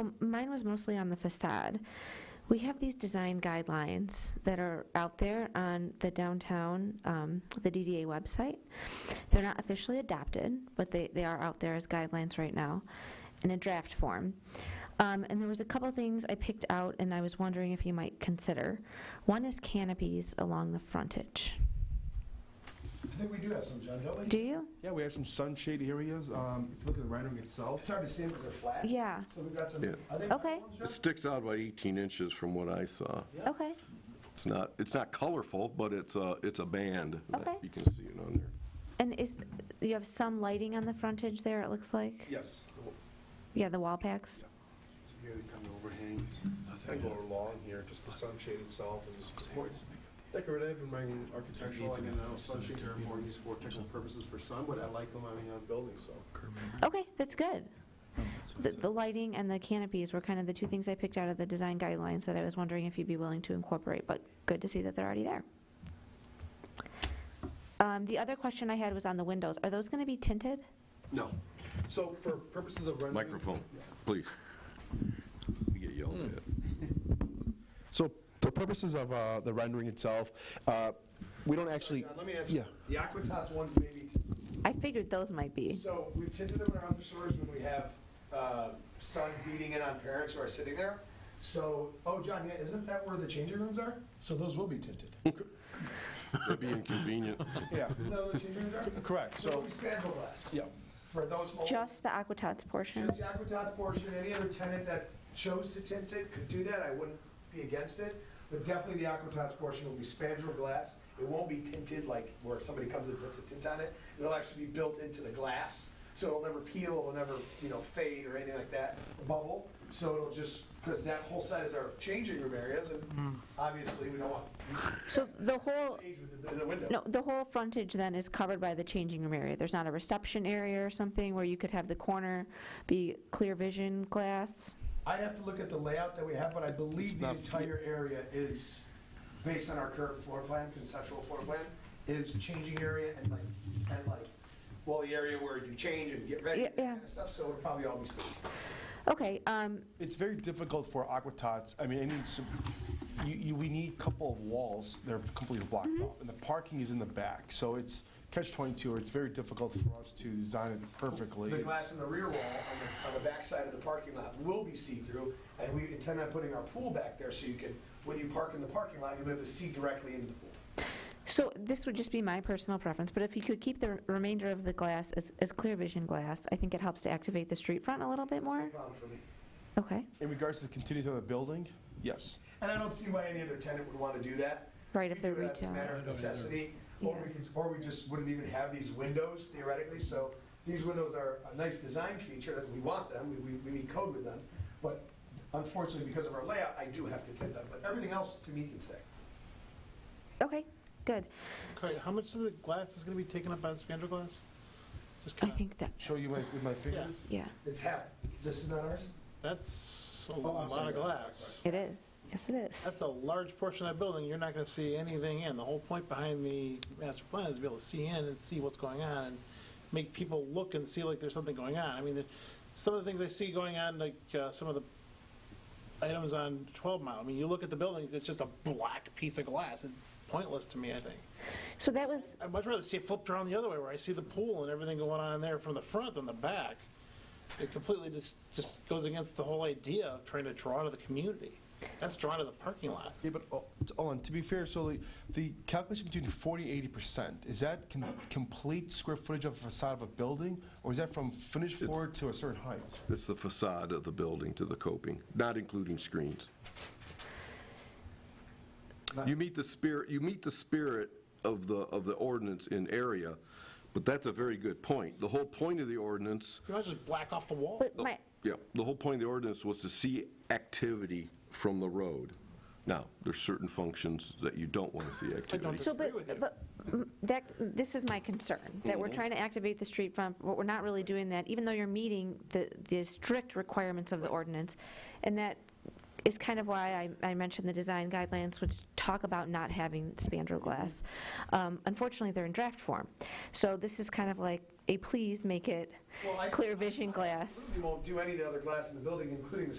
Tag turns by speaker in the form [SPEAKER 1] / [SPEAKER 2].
[SPEAKER 1] Um, Mine was mostly on the facade. We have these design guidelines that are out there on the downtown, um, the DDA website. They're not officially adopted, but they, they are out there as guidelines right now in a draft form. Um, And there was a couple things I picked out and I was wondering if you might consider. One is canopies along the frontage.
[SPEAKER 2] I think we do have some, John, don't we?
[SPEAKER 1] Do you?
[SPEAKER 3] Yeah, we have some sunshade areas. Um, if you look at the rendering itself,
[SPEAKER 2] It's hard to see because they're flat.
[SPEAKER 1] Yeah,
[SPEAKER 2] So we've got some,
[SPEAKER 4] Yeah.
[SPEAKER 2] are they?
[SPEAKER 1] Okay.
[SPEAKER 2] platforms, John?
[SPEAKER 4] It sticks out about 18 inches from what I saw.
[SPEAKER 1] okay.
[SPEAKER 4] It's not, it's not colorful, but it's a, it's a band. that
[SPEAKER 1] Okay.
[SPEAKER 4] You can see it on there.
[SPEAKER 1] And is, you have some lighting on the frontage there, it looks like?
[SPEAKER 3] yes,
[SPEAKER 1] Yeah, the wall packs?
[SPEAKER 3] here they come overhangs. I go along here, just the sunshade itself is supports decorative and being architectural. And now sunshades are more used for technical purposes for sun, but I like them on on buildings, so.
[SPEAKER 1] Okay, that's good. The, the lighting and the canopies were kind of the two things I picked out of the design guidelines that I was wondering if you'd be willing to incorporate, but good to see that they're already there. Um, the other question I had was on the windows. Are those going to be tinted?
[SPEAKER 3] No. So for purposes of rendering.
[SPEAKER 4] Microphone, please. We get yelled at.
[SPEAKER 5] So for purposes of uh, the rendering itself, uh, we don't actually,
[SPEAKER 3] John, let me answer.
[SPEAKER 5] yeah,
[SPEAKER 3] The Aquatats ones maybe,
[SPEAKER 1] I figured those might be.
[SPEAKER 2] So we've tinted them around the stores when we have uh, sun beating in on parents who are sitting there. So, oh, John, yeah, isn't that where the changing rooms are? So those will be tinted.
[SPEAKER 4] That'd be inconvenient.
[SPEAKER 3] yeah.
[SPEAKER 2] Isn't that where the changing rooms are?
[SPEAKER 3] Correct,
[SPEAKER 2] So
[SPEAKER 3] so,
[SPEAKER 2] we spandrel glass
[SPEAKER 3] yeah.
[SPEAKER 2] for those homes.
[SPEAKER 1] Just the Aquatats portion.
[SPEAKER 2] Just the Aquatats portion, any other tenant that chose to tint it could do that, I wouldn't be against it. But definitely the Aquatats portion will be spandrel glass, it won't be tinted like where somebody comes and puts a tint on it. It'll actually be built into the glass, so it'll never peel, it'll never, you know, fade or anything like that, bubble. So it'll just, because that whole side is our changing room areas, and obviously we don't want
[SPEAKER 1] So the whole,
[SPEAKER 2] to change with the- the window.
[SPEAKER 1] no, the whole frontage then is covered by the changing room area. There's not a reception area or something where you could have the corner be clear vision glass?
[SPEAKER 2] I'd have to look at the layout that we have, but I
[SPEAKER 3] It's
[SPEAKER 2] believe the
[SPEAKER 3] not-
[SPEAKER 2] entire area is, based on our current floor plan, conceptual floor plan, is changing area and like, and like, well, the area where you change and get ready
[SPEAKER 1] Yeah,
[SPEAKER 2] and that
[SPEAKER 1] yeah.
[SPEAKER 2] kind of stuff, so it'll probably all be still.
[SPEAKER 1] Okay, um,
[SPEAKER 3] It's very difficult for aquatots, I mean, any, s- you, you, we need a couple of walls that are completely blocked off, and the parking is in the back, so it's catch twenty-two, or it's very difficult for us to design it perfectly.
[SPEAKER 2] The
[SPEAKER 3] It's-
[SPEAKER 2] glass in the rear wall on the, on the backside of the parking lot will be see-through, and we intend on putting our pool back there so you can, when you park in the parking lot, you'll be able to see directly into the pool.
[SPEAKER 1] So this would just be my personal preference, but if you could keep the r- remainder of the glass as, as clear vision glass, I think it helps to activate the street front a little bit
[SPEAKER 2] No
[SPEAKER 1] more.
[SPEAKER 2] problem for me.
[SPEAKER 1] Okay,
[SPEAKER 3] In regards to the continuity of the building, yes.
[SPEAKER 2] And I don't see why any other tenant would want to do that.
[SPEAKER 1] right, if they're
[SPEAKER 2] We do it as a
[SPEAKER 1] retail.
[SPEAKER 2] Matter of necessity, or we, could- or we just wouldn't even have these windows theoretically, so these windows are a nice design feature, that we want them, we, we, we need code with them, but unfortunately, because of our layout, I do have to tint them, but everything else to me can stay.
[SPEAKER 1] Okay, good.
[SPEAKER 6] Okay, how much of the glass is going to be taken up by the spandrel glass? Just
[SPEAKER 1] I
[SPEAKER 6] kind of,
[SPEAKER 1] think that,
[SPEAKER 3] Show you my- with my
[SPEAKER 6] yeah,
[SPEAKER 3] fingers?
[SPEAKER 1] yeah,
[SPEAKER 2] It's half, this is not ours?
[SPEAKER 6] that's a
[SPEAKER 2] Oh, I'm
[SPEAKER 6] lot
[SPEAKER 2] sorry.
[SPEAKER 6] of glass.
[SPEAKER 1] it is. Yes, it is.
[SPEAKER 6] That's a large portion of that building, you're not going to see anything in. The whole point behind the master plan is to be able to see in and see what's going on, and make people look and see like there's something going on. I mean, the- some of the things I see going on, like uh, some of the items on 12 Mile, I mean, you look at the buildings, it's just a black piece of glass, it's pointless to me, I think.
[SPEAKER 1] So that was,
[SPEAKER 6] I'd much rather see it flipped around the other way, where I see the pool and everything going on in there from the front than the back. It completely just, just goes against the whole idea of trying to draw to the community. That's drawn to the parking lot.
[SPEAKER 3] Yeah, but, oh, t- hold on, to be fair, so the, the calculation between 40 and 80%, is that con- complete square footage of a facade of a building? Or is that from finished floor to a certain height?
[SPEAKER 4] It's the facade of the building to the coping, not including screens. You meet the spirit, you meet the spirit of the, of the ordinance in area, but that's a very good point. The whole point of the ordinance
[SPEAKER 6] You might as well just black off the wall.
[SPEAKER 4] Oh.
[SPEAKER 1] but my,
[SPEAKER 4] Yeah, the whole point of the ordinance was to see activity from the road. Now, there's certain functions that you don't want to see activity.
[SPEAKER 1] so but,
[SPEAKER 6] disagree with you.
[SPEAKER 1] but mm, that, this is my concern, that we're trying to activate the street front, but we're not really doing that, even though you're meeting the, the strict requirements of the ordinance. And that is kind of why I, I mentioned the design guidelines, which talk about not having spandrel glass. Um, Unfortunately, they're in draft form. So this is kind of like a please make it
[SPEAKER 2] Well, I-
[SPEAKER 1] clear vision glass.
[SPEAKER 2] We won't do any of the other glass in the building, including the